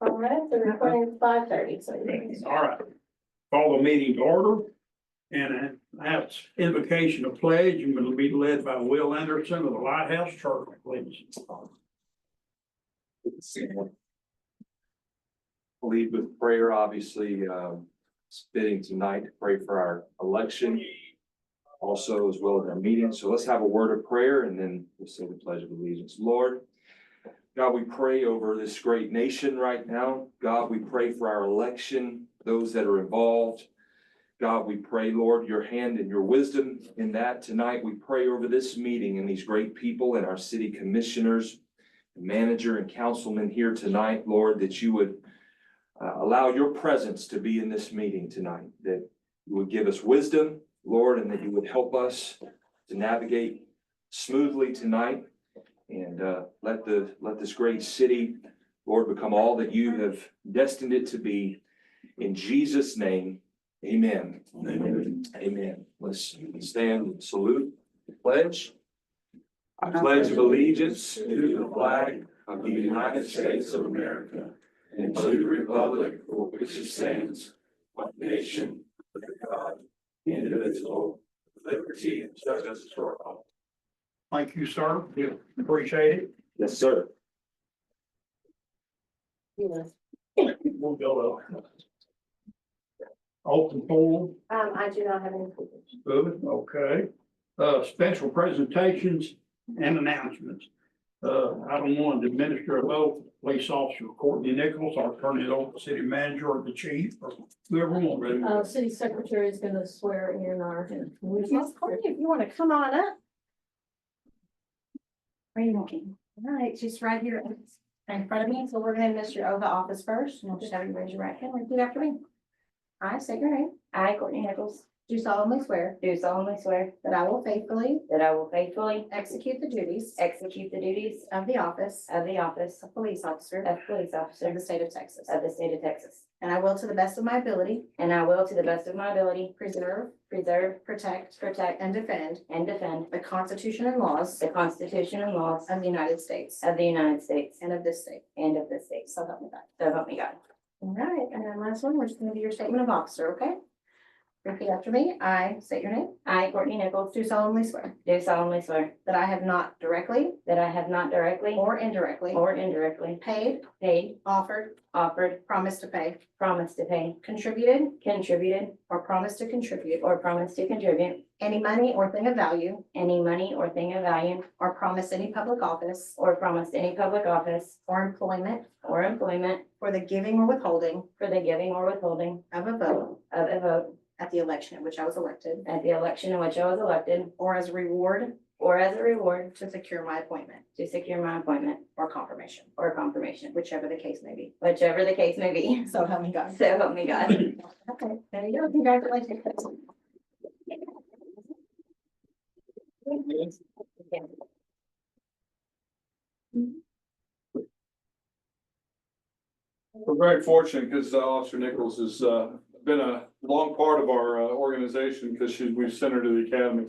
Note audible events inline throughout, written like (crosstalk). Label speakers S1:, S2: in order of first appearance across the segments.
S1: All right, the recording is five thirty, so. you can-
S2: All right. Call the meeting to order. And that's invocation to pledge and will be led by Will Anderson of the Lighthouse Church, please.
S3: lead with prayer, obviously, um, it's fitting tonight to pray for our election. Also, as well as our meeting, so let's have a word of prayer and then we'll say the pledge of allegiance. Lord, God, we pray over this great nation right now. God, we pray for our election, those that are involved. God, we pray, Lord, your hand and your wisdom in that tonight. We pray over this meeting and these great people and our city commissioners, manager and councilmen here tonight, Lord, that you would uh, allow your presence to be in this meeting tonight, that you would give us wisdom, Lord, and that you would help us to navigate smoothly tonight. And uh, let the, let this great city, Lord, become all that you have destined it to be. In Jesus' name, amen. Amen. Let's stand and salute, pledge. I pledge allegiance to the flag of the United States of America and to the republic for which it stands, one nation, under God, indivisible, with liberty and justice for all.
S2: Thank you, sir. We Appreciate it.
S3: Yes, sir.
S1: Yes.
S2: We'll go up. Open forum.
S1: Um, I do not have any.
S2: Good, okay. Uh, special presentations and announcements. Uh, item one, to administer a vote, police officer Courtney Nichols, I'll turn it over to city manager or the chief or whoever will ready.
S4: Uh, city secretary is gonna swear in our.
S1: Miss Courtney, if you want to come on up. Where are you looking? All right, she's right here in front of me, so we're gonna miss your oath of office first, and I'll just have you raise your right hand, and repeat after me. I say your name, I, Courtney Nichols, do solemnly swear
S5: Do solemnly swear
S1: that I will faithfully
S5: that I will faithfully
S1: execute the duties
S5: execute the duties
S1: of the office
S5: of the office
S1: of police officer
S5: of police
S1: of
S5: officer
S1: the state of Texas,
S5: of the state of Texas.
S1: and I will to the best of my ability
S5: And I will, to the best of my ability,
S1: preserve,
S5: preserve,
S1: protect, protect, and defend
S5: and defend
S1: the Constitution and laws
S5: the Constitution and laws
S1: of the United States
S5: of the United States
S1: and of this state.
S5: and of the state.
S1: So help me God.
S5: So help me God.
S1: All right, and then last one, we're just gonna do your statement of officer, okay? Repeat after me. I state your name.
S5: I, Courtney Nichols,
S1: Do solemnly swear
S5: do solemnly swear
S1: that I have not directly
S5: that I have not directly
S1: or indirectly
S5: or indirectly
S1: paid,
S5: paid,
S1: offered,
S5: offered,
S1: promised to pay,
S5: promised to pay,
S1: contributed,
S5: contributed,
S1: or promised to contribute
S5: or promised to contribute
S1: any money or thing of value
S5: any money or thing of value
S1: or promised any public office
S5: or promised any public office
S1: or employment
S5: or employment
S1: for the giving or withholding
S5: for the giving or withholding
S1: of a vote
S5: of a vote
S1: at the election in which I was elected
S5: at the election in which I was elected,
S1: or as reward
S5: or as a reward
S1: to secure my appointment
S5: to secure my appointment
S1: or confirmation,
S5: or confirmation,
S1: whichever the case may be.
S5: whichever the case may be. (laughs)
S1: So help me God.
S5: So help me God.
S1: Okay, there you go, congratulations.
S6: We're very fortunate because Officer Nichols has uh, been a long part of our uh, organization because she, we've sent her to the academy.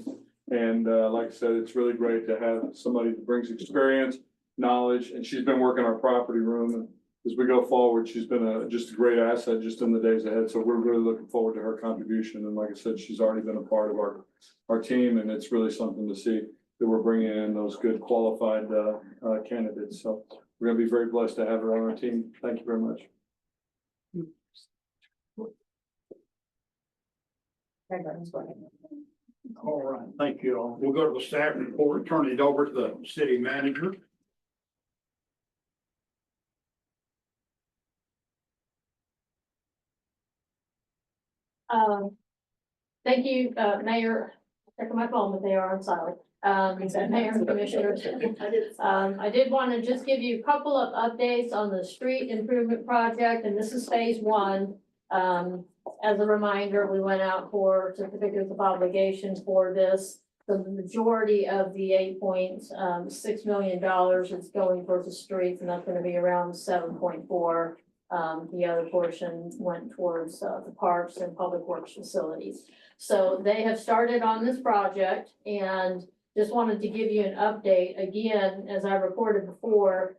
S6: And uh, like I said, it's really great to have somebody that brings experience, knowledge, and she's been working our property room. And As we go forward, she's been a, just a great asset just in the days ahead. So we're really looking forward to her contribution. And like I said, she's already been a part of our, our team and it's really something to see that we're bringing in those good qualified uh, uh, candidates. So we're gonna be very blessed to have her on our team. Thank you very much.
S2: All right, thank you all. We'll go to the staff report, turn it over to the city manager.
S4: Um, thank you, uh, Mayor, check my phone, but they are on silent. Um, it's that Mayor and Commissioners. Um, I did want to just give you a couple of updates on the street improvement project, and this is phase one. Um, as a reminder, we went out for certificates of obligation for this. The majority of the eight point um, six million dollars is going towards the streets, and that's gonna be around seven point four. Um, the other portion went towards uh, the parks and public works facilities. So they have started on this project and just wanted to give you an update. Again, as I reported before,